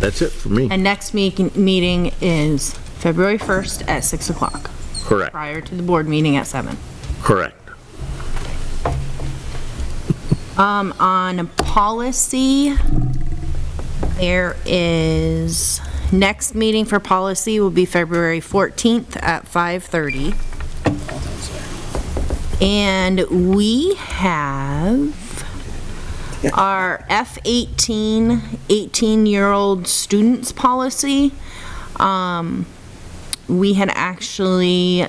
That's it for me. And next meek- meeting is February 1st at 6 o'clock, Correct, prior to the board meeting at 7. correct. Um, on policy, there is, next meeting for policy will be February 14th at 5:30. And we have our F-18, 18-year-old students policy. Um, we had actually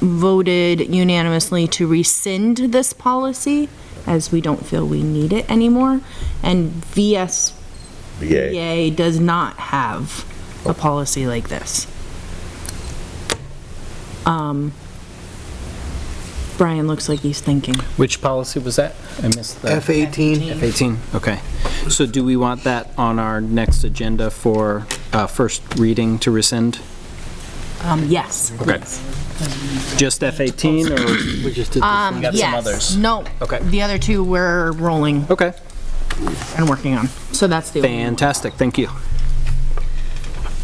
voted unanimously to rescind this policy as we don't feel we need it anymore. And Yay. VSBA does not have a policy like this. Um, Brian looks like he's thinking. Which policy was that? I missed that. F-18. F-18, okay. So do we want that on our next agenda for uh, first reading to rescind? Um, yes. Okay. Just F-18 or? We just did this Um, one. got some yes. others. No. Okay. The other two we're rolling Okay, and working on. So that's the. only one. fantastic, thank you.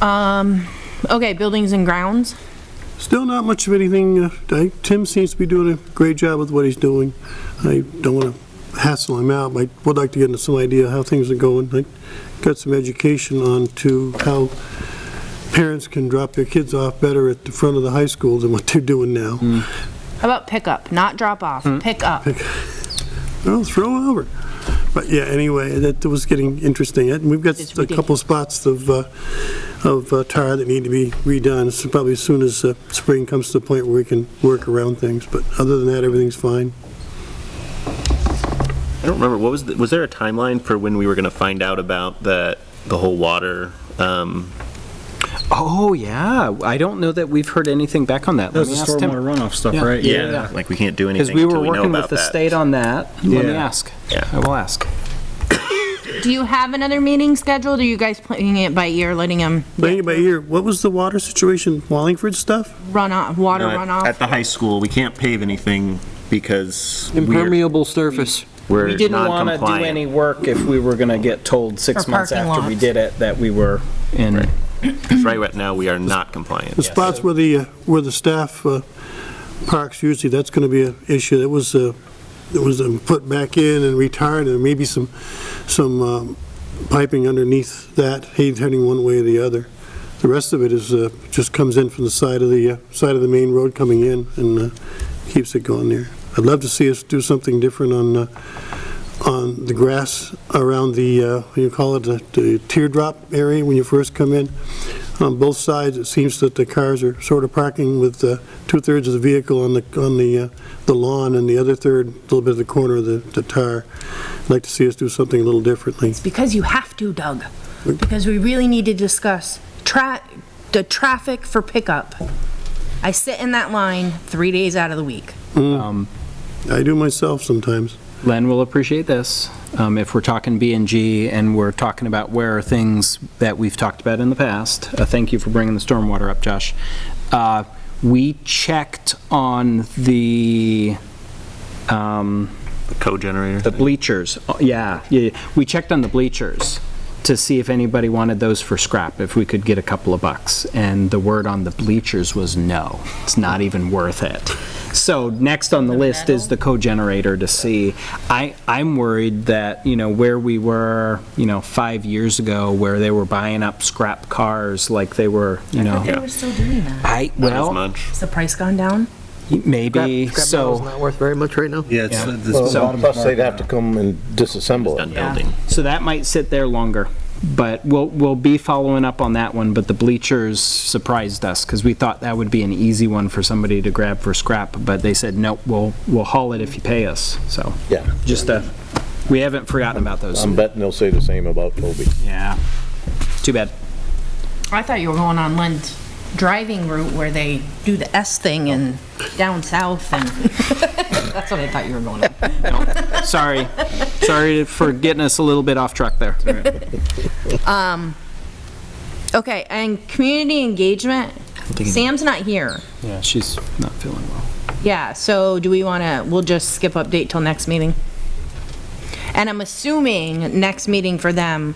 Um, okay, buildings and grounds. Still not much of anything, uh, I- Tim seems to be doing a great job with what he's doing. I don't want to hassle him out, but I would like to get into some idea how things are going. I Got some education on to how parents can drop their kids off better at the front of the high school than what they're doing now. How about pickup, not drop off, Hmm? pick up. Well, throw over. But yeah, anyway, that was getting interesting. And we've got It's a couple spots of, uh, of uh, tar that need to be redone, so probably as soon as uh, spring comes to the point where we can work around things. But other than that, everything's fine. I don't remember, what was, the- was there a timeline for when we were gonna find out about the, the whole water? um, Oh, yeah, I don't know that we've heard anything back on that. Let me ask Tim. runoff stuff, Yeah. right? Yeah. Like, we can't do Because anything we were until we know working with about the that. state on that. Let me Yeah. ask. Yeah. I will ask. Do you have another meeting scheduled? Are you guys playing it by ear, letting them But anyway, here, what was the water situation, Wallingford stuff? run off, water No, run off? At the high school, we can't pave anything because we're, Impermeable surface. We we're didn't want to do any non-compliant. work if we were going to get told six For months parking after we lots. did it that we were in. Right right now, we are not compliant. The spots where the, uh, where the staff uh, parks usually, that's going to be an issue. That was, uh, it was um, put back in and retired, and maybe some, some um, piping underneath that, heading one way or the other. The rest of it is, uh, just comes in from the side of the, uh, side of the main road coming in and uh, keeps it going there. I'd love to see us do something different on, uh, on the grass around the, uh, what do you call it, the- the teardrop area when you first come in. On both sides, it seems that the cars are sort of parking with uh, two-thirds of the vehicle on the, on the, uh, the lawn and the other third, a little bit of the corner of the, the tar. I'd like to see us do something a little differently. Because you have to, Doug. Because we really need to discuss tra, the traffic for pickup. I sit in that line three days out of the week. I do myself sometimes. Len will appreciate this. Um, If we're talking B and G and we're talking about where are things that we've talked about in the past, uh, thank you for bringing the stormwater up, Josh. Uh, We checked on the, um, Co-generator. the bleachers. Oh, Yeah, yeah, yeah. we checked on the bleachers to see if anybody wanted those for scrap, if we could get a couple of bucks. And the word on the bleachers was no, it's not even worth it. So next on the list is the co-generator to see. I, I'm worried that, you know, where we were, you know, five years ago, where they were buying up scrap cars like they were, you They know. were still doing that. I, Not as well, much. Has the price gone down? maybe, so. not worth very much right now. Yeah, it's, Yeah. it's- So- Plus, they'd have to come and disassemble it. Done building. So that might sit there longer, but we'll, we'll be following up on that one, but the bleachers surprised us, because we thought that would be an easy one for somebody to grab for scrap, but they said, nope, we'll, we'll haul it if you pay us, so. Yeah. Just a, we haven't forgotten about those. I'm betting they'll say the same about Toby. Yeah. Too bad. I thought you were going on Lent driving route where they do the S thing and down south and, that's what I thought you were going on. Sorry. Sorry for getting us a little bit off track there. Okay, and community engagement, Sam's not here. Yeah, she's not feeling well. Yeah, so do we want to, we'll just skip update till next meeting? And I'm assuming next meeting for them